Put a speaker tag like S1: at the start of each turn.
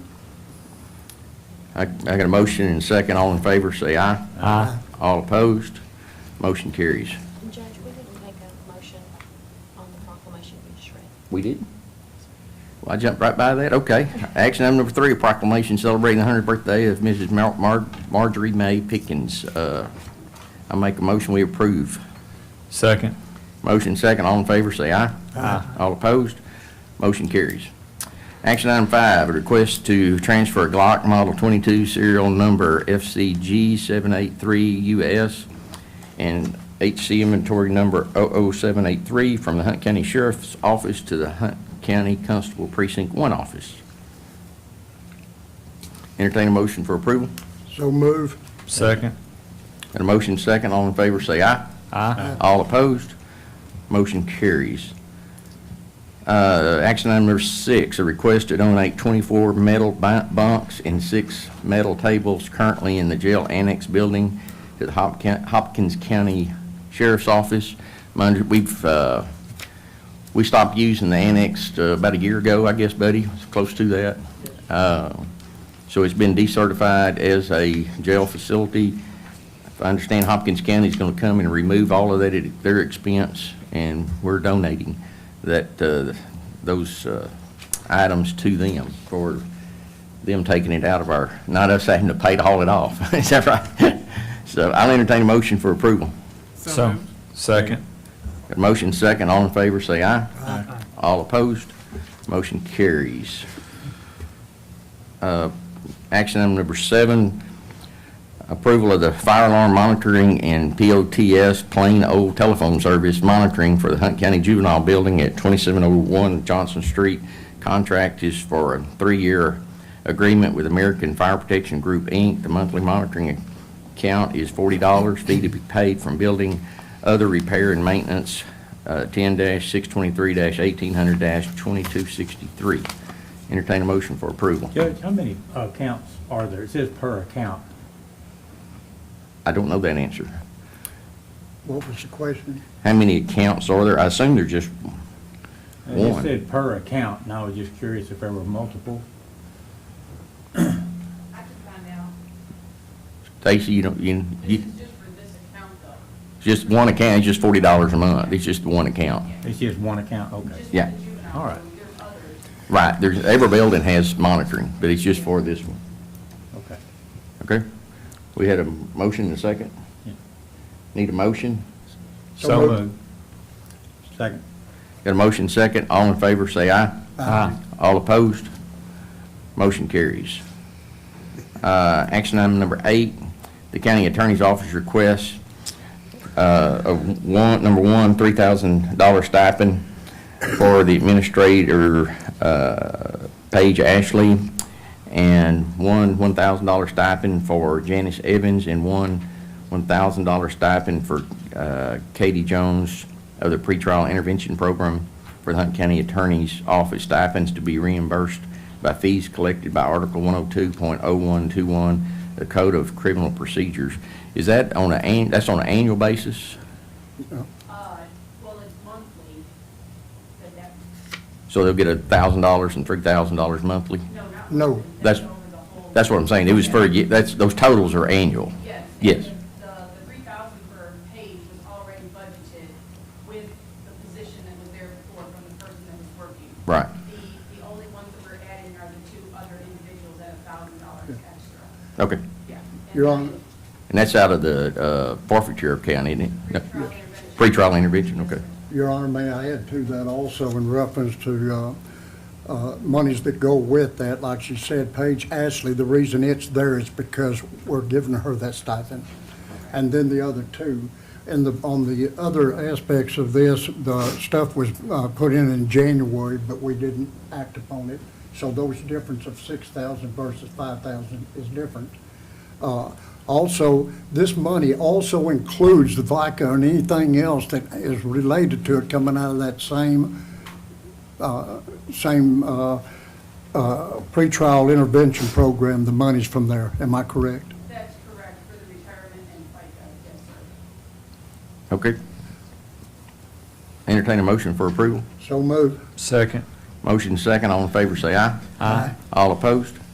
S1: I, I got a motion and a second. All in favor, say aye.
S2: Aye.
S1: All opposed? Motion carries.
S3: Judge, we didn't make a motion on the proclamation you just read.
S1: We did? Well, I jumped right by that. Okay. Action item number three, a proclamation celebrating the hundredth birthday of Mrs. Mar- Mar- Marjorie May Pickens. Uh, I make a motion, we approve.
S2: Second.
S1: Motion second, all in favor, say aye.
S2: Aye.
S1: All opposed, motion carries. Action item five, a request to transfer Glock Model 22 serial number FCG 783US and HC inventory number 00783 from the Hunt County Sheriff's Office to the Hunt County Constable Precinct 1 Office. Entertain a motion for approval.
S4: So move.
S2: Second.
S1: Got a motion second, all in favor, say aye.
S2: Aye.
S1: Uh, All opposed? Motion carries. Uh, Action item number six, a request to donate 24 metal bu- bunks and six metal tables currently in the jail annex building to the Hop- Hopkins County Sheriff's Office. Mind you, we've, uh, we stopped using the annex uh, about a year ago, I guess, Buddy, It's close to that. Uh, So it's been decertified as a jail facility. If I understand, Hopkins County's going to come and remove all of that at their expense, and we're donating that, uh, those uh, items to them for them taking it out of our, not us having to pay to haul it off. Is that right? So I'll entertain a motion for approval.
S2: So, second.
S1: Got a motion second, all in favor, say aye. Aye. All opposed, motion carries. Uh, Action item number seven, approval of the fire alarm monitoring and POTS plain old telephone service monitoring for the Hunt County Juvenile Building at 2701 Johnson Street. Contract is for a three-year agreement with American Fire Protection Group, Inc. The monthly monitoring account is $40, fee to be paid from building other repair and maintenance, uh, 10-623-1800-2263. Entertain a motion for approval.
S5: Judge, how many accounts are there? It says per account.
S1: I don't know that answer.
S4: What was the question?
S1: How many accounts are there? I assume they're just,
S5: It just
S1: One.
S5: said per account, and I was just curious if there were multiple.
S6: I can find out.
S1: Stacy, you don't, you,
S6: This
S1: you,
S6: is just for this account though.
S1: just one account, it's just forty dollars a month. It's just the one account.
S5: It's just one account, okay.
S6: Just for
S1: Yeah.
S6: the juvenile.
S5: All right.
S6: There's others.
S1: Right, there's, every building has monitoring, but it's just for this one,
S5: Okay.
S1: okay? We had a motion and a second?
S5: Yeah.
S1: Need a motion?
S2: So moved.
S5: Second.
S1: Got a motion second, all in favor, say aye.
S2: Aye.
S1: All opposed? Motion carries. Uh, Action item number eight, the county attorney's office requests, uh, of one, number one, $3,000 stipend for the administrator, uh, Paige Ashley, and one $1,000 stipend for Janice Evans, and one $1,000 stipend for uh, Katie Jones of the pretrial intervention program for the Hunt County Attorney's Office stipends to be reimbursed by fees collected by Article 102.0121, the Code of Criminal Procedures. Is that on a, that's on an annual basis?
S6: Uh, well, it's monthly, but that,
S1: So they'll get $1,000 and $3,000 monthly?
S6: no, not.
S4: No.
S6: monthly.
S1: That's-
S6: over the whole-
S1: That's what I'm saying, it was for, a ye- that's, those totals are annual.
S6: Yes. and
S1: Yes.
S6: The, the three thousand per page was already budgeted with the position that was there before from the person that was working.
S1: Right.
S6: The, the only ones that we're adding are the two other individuals at a thousand dollars extra.
S1: Okay.
S6: Yeah. and
S4: You're
S6: then
S4: on-
S1: And that's out of the uh, forfeiture account, isn't it? No.
S6: Pretrial intervention.
S1: Pretrial intervention, okay.
S4: Your Honor, may I add to that also in reference to uh, uh, monies that go with that? Like she said, Paige Ashley, the reason it's there is because we're giving her that stipend. And then the other two. And the, on the other aspects of this, the stuff was uh, put in in January, but we didn't act upon it. So those difference of 6,000 versus 5,000 is different. Uh, Also, this money also includes the VICA and anything else that is related to it coming out of that same, uh, same uh, uh, pretrial intervention program, the money's from there. Am I correct?
S6: That's correct, for the retirement and FICA, yes, sir.
S1: Okay. Entertain a motion for approval.
S4: So moved.
S2: Second.
S1: Motion second, all in favor, say aye.
S2: Aye.
S1: All opposed?